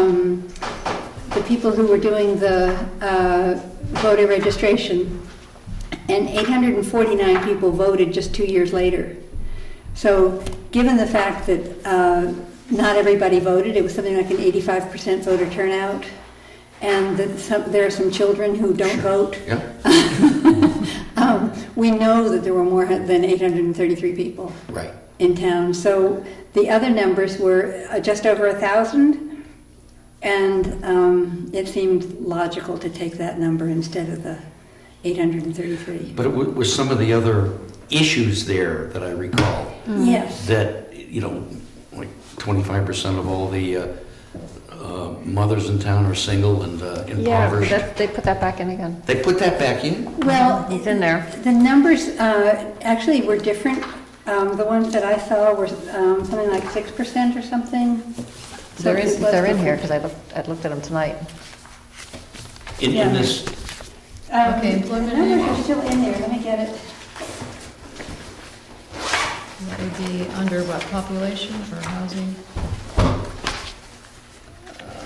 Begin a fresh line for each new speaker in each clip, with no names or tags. um, the people who were doing the uh, voter registration, and 849 people voted just two years later. So, given the fact that uh, not everybody voted, it was something like an 85% voter turnout, and that some, there are some children who don't vote.
Yeah,
Um, we know that there were more than 833 people
right.
in town. So the other numbers were uh, just over a thousand, and um, it seemed logical to take that number instead of the 833.
But it wa- was some of the other issues there that I recall
Hmm.
Yes.
that, you know, like 25% of all the uh, uh, mothers in town are single and uh,
Yeah,
impoverished.
that- they put that back in again.
They put that back in?
Well,
It's in there.
The numbers uh, actually were different. Um, the ones that I saw were um, something like six percent or something. So
They're
it
in,
was
they're in here,
different.
because I looked, I looked at them tonight.
In
Yeah.
in this,
Um,
Okay, employment
The numbers
and-
are still in there. Let me get it.
That would be under what, population or housing?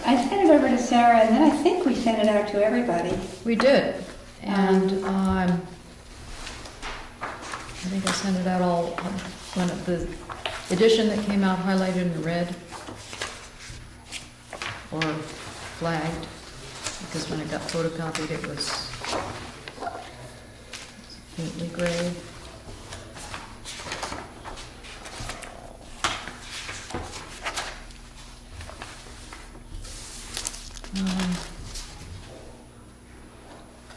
I sent it over to Sarah, and then I think we sent it out to everybody.
We did, and, um, I think I sent it out all, um, when it- the edition that came out highlighted in red or flagged, because when it got photocopied, it was faintly gray. Um,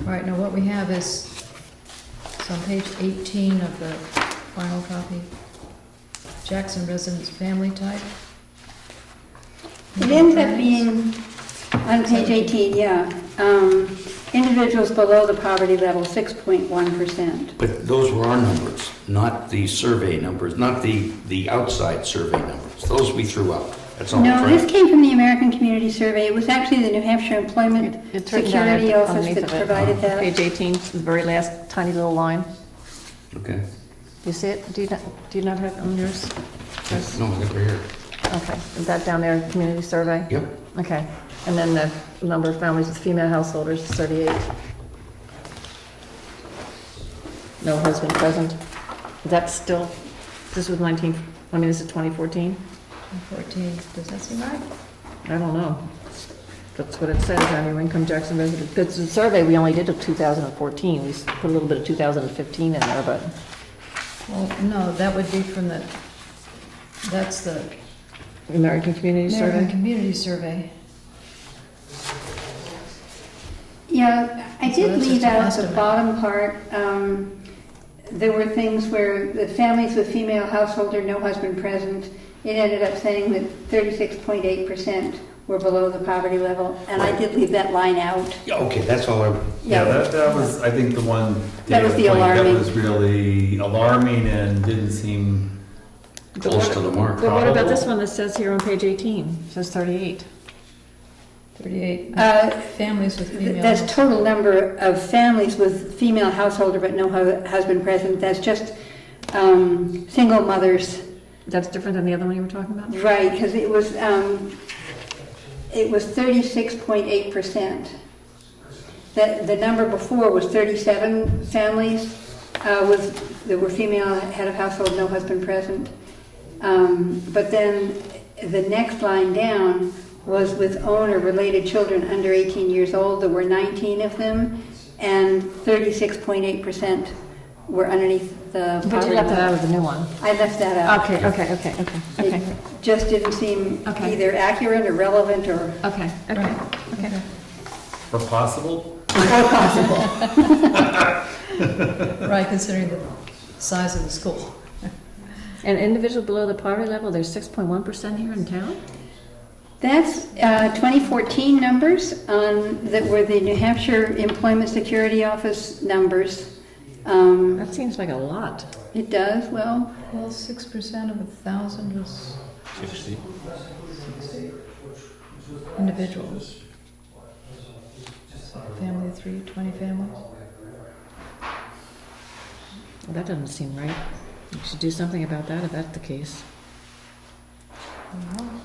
all right, now what we have is, it's on page 18 of the final copy, Jackson residents family type.
It ends up being, on page 18, yeah, um, individuals below the poverty level, 6.1%.
but those were our numbers, not the survey numbers, not the, the outside survey numbers. Those we threw out. That's all I'm
No, this
trying.
came from the American Community Survey. It was actually the New Hampshire Employment
It's written down
Security
there
Office
underneath
that
of it.
provided
Page
that.
18, the very last tiny little line.
Okay.
You see it? Do you not, do you not have it on yours? Yes.
No, I think we're here.
Okay, is that down there, community survey?
Yep.
Okay, and then the number of families with female householders is 38. No husband present. That's still, this was 19, I mean, this is 2014?
14, does that seem right?
I don't know. That's what it says, annual income Jackson resident, because the survey we only did of 2014, we s- put a little bit of 2015 in there, but,
Well, no, that would be from the, that's the
American Community
American
Survey?
Community Survey.
Yeah, I
So
did
that's
leave
just an
out the
estimate.
bottom part. Um, There were things where the families with female householder, no husband present, it ended up saying that 36.8% were below the poverty level, and I did leave that line out.
Yeah, okay, that's all I,
Yeah, that, that was, I think, the one.
That was the
data point
alarming.
That was really alarming and didn't seem,
close to the mark.
But what about this one that says here on page 18, It says 38?
38,
Uh,
families with female.
That's total number of families with female householder but no hu- husband present. That's just um, single mothers,
That's different than the other one you were talking about?
right? Because it was um, it was thirty six point eight percent. That the number before was thirty seven families uh, with that were female head of household, no husband present. Um, but then the next line down was with own or related children under 18 years old. There were 19 of them, and 36.8% were underneath the
But you
poverty
left that out
line.
of the new one.
I left that out.
Okay, okay, okay, okay, okay,
It just didn't seem
Okay.
either accurate or relevant or
okay, okay, okay.
or possible,
Right, considering the size of the school.
And individual below the poverty level, there's 6.1% here in town?
That's uh, 2014 numbers on, that were the New Hampshire Employment Security Office numbers. Um,
That seems like a lot.
It does, well,
Well, 6% of a 1,000 was individuals. Family of three, 20 families.
Well, that doesn't seem right. You should do something about that if that's the case.
Wow.